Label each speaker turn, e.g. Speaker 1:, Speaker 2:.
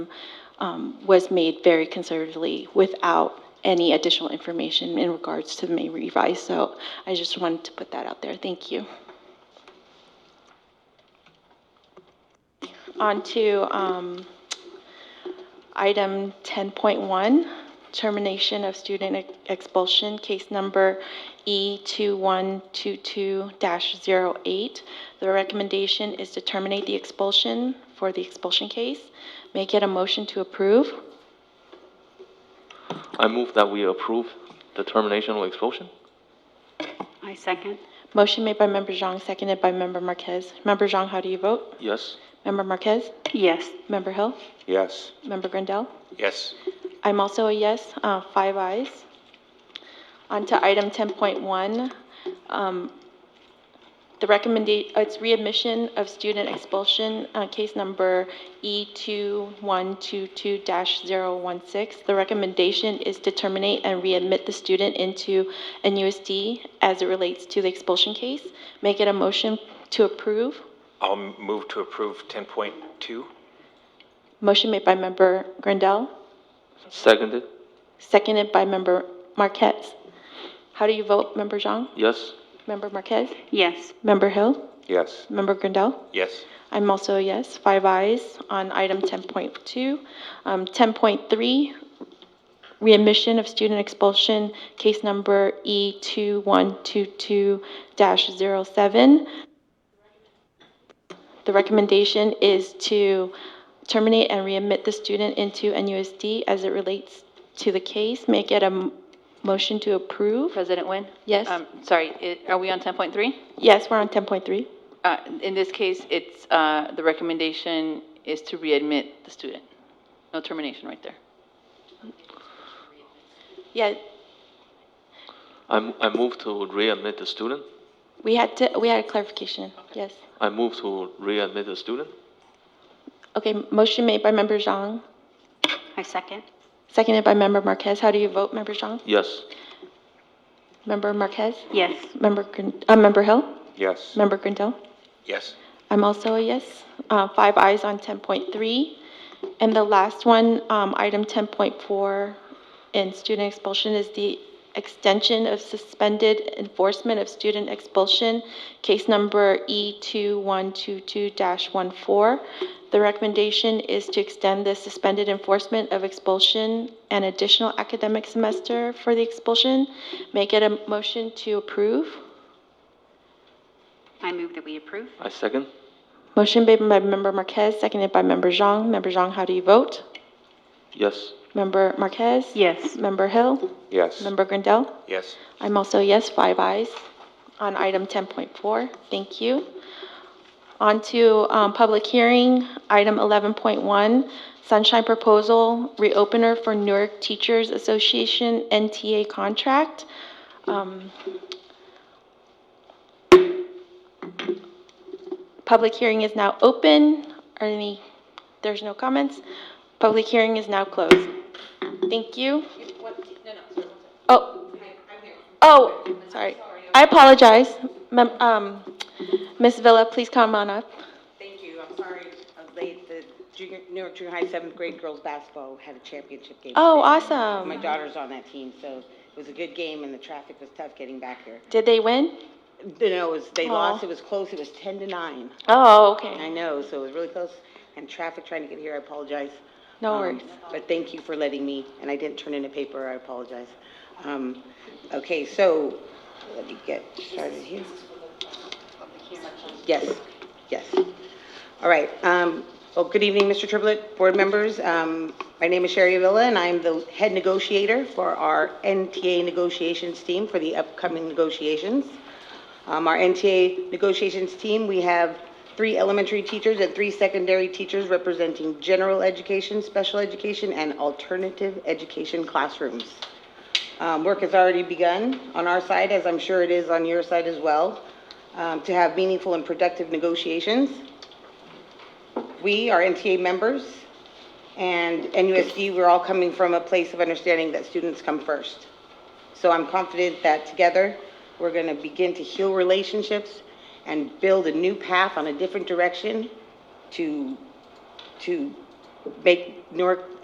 Speaker 1: um, was made very conservatively without any additional information in regards to the May revise. So I just wanted to put that out there. Thank you. On to um, item 10.1, termination of student ex- expulsion, case number E E2122-08. The recommendation is to terminate the expulsion for the expulsion case. May I get a motion to approve?
Speaker 2: I move that we approve the termination or expulsion.
Speaker 3: I second.
Speaker 1: Motion made by Member Zhang, seconded by Member Marquez. Member Zhang, how do you vote?
Speaker 2: Yes.
Speaker 1: Member Marquez?
Speaker 3: Yes.
Speaker 1: Member Hill?
Speaker 2: Yes.
Speaker 1: Member Grandal?
Speaker 2: Yes.
Speaker 1: I'm also a yes, uh, five ayes. On to item 10.1. um, The recommendation, it's readmission of student expulsion, uh, case number E E2122-016. The recommendation is to terminate and readmit the student into NUSD as it relates to the expulsion case. Make it a motion to approve.
Speaker 4: I'll move to approve 10.2.
Speaker 1: Motion made by Member Grandal,
Speaker 2: Seconded.
Speaker 1: seconded by Member Marquez. How do you vote, Member Zhang?
Speaker 2: Yes.
Speaker 1: Member Marquez?
Speaker 3: Yes.
Speaker 1: Member Hill?
Speaker 2: Yes.
Speaker 1: Member Grandal?
Speaker 4: Yes.
Speaker 1: I'm also a yes, five ayes on item 10.2. Um, 10.3, readmission of student expulsion, case number E E2122-07. The recommendation is to terminate and readmit the student into NUSD as it relates to the case. May I get a m- motion to approve?
Speaker 5: President Nguyen?
Speaker 1: Yes,
Speaker 5: Um, Sorry, i- are we on 10.3?
Speaker 1: yes, we're on 10.3.
Speaker 5: Uh, In this case, it's, uh, the recommendation is to readmit the student. No termination right there.
Speaker 1: Yeah,
Speaker 2: I, m- I move to readmit the student.
Speaker 1: We had to, we had a clarification, yes.
Speaker 2: I move to readmit the student.
Speaker 1: Okay, motion made by member Zhang,
Speaker 3: I second.
Speaker 1: seconded by member Marquez. How do you vote, member Zhang?
Speaker 2: Yes.
Speaker 1: Member Marquez?
Speaker 3: Yes.
Speaker 1: Member, Grin- uh, member Hill?
Speaker 2: Yes.
Speaker 1: Member Grindel?
Speaker 4: Yes.
Speaker 1: I'm also a yes. Uh, Five eyes on 10.3. And the last one, um, item 10.4 in student expulsion is the extension of suspended enforcement of student expulsion, case number E E2122-14. The recommendation is to extend the suspended enforcement of expulsion an additional academic semester for the expulsion. Make it a motion to approve.
Speaker 3: I move that we approve.
Speaker 2: I second.
Speaker 1: Motion made by Member Marquez, seconded by Member Zhang. Member Zhang, how do you vote?
Speaker 2: Yes.
Speaker 1: Member Marquez?
Speaker 3: Yes.
Speaker 1: Member Hill?
Speaker 2: Yes.
Speaker 1: Member Grandal?
Speaker 4: Yes.
Speaker 1: I'm also a yes, five ayes on item 10.4. Thank you. On to um, public hearing, item 11.1, Sunshine Proposal, reopener for Newark Teachers Association NTA contract. Um, Public hearing is now open. Are any, there's no comments. Public hearing is now closed. Thank you. Oh, Oh, sorry. I apologize. Mem- um, Ms. Villa, please come on up.
Speaker 6: Thank you, I'm sorry I was late. The junior, New York Junior High seventh grade girls basketball had a championship game.
Speaker 1: Oh,
Speaker 6: today. My
Speaker 1: awesome.
Speaker 6: daughter's on that team, so it was a good game and the traffic was tough getting back here.
Speaker 1: Did they win?
Speaker 6: You know, it was, they
Speaker 1: Aw.
Speaker 6: lost, it was close, it was ten to nine.
Speaker 1: Oh,
Speaker 6: I
Speaker 1: okay.
Speaker 6: know, so it was really close and traffic trying to get here, I apologize.
Speaker 1: No
Speaker 6: Um,
Speaker 1: worries.
Speaker 6: But thank you for letting me, and I didn't turn in a paper, I apologize. Um, okay, so, let me get started here. Yes, yes. All right, um, well, good evening, Mr. Triplett, board members. Um, my name is Sherry Avila, and I'm the head negotiator for our NTA negotiations team for the upcoming negotiations. Um, our NTA negotiations team, we have three elementary teachers and three secondary teachers representing general education, special education, and alternative education classrooms. Um, Work has already begun on our side, as I'm sure it is on your side as well, um, to have meaningful and productive negotiations. We are NTA members, and NUSD, we're all coming from a place of understanding that students come first. So I'm confident that together, we're going to begin to heal relationships and build a new path on a different direction to, to make Newark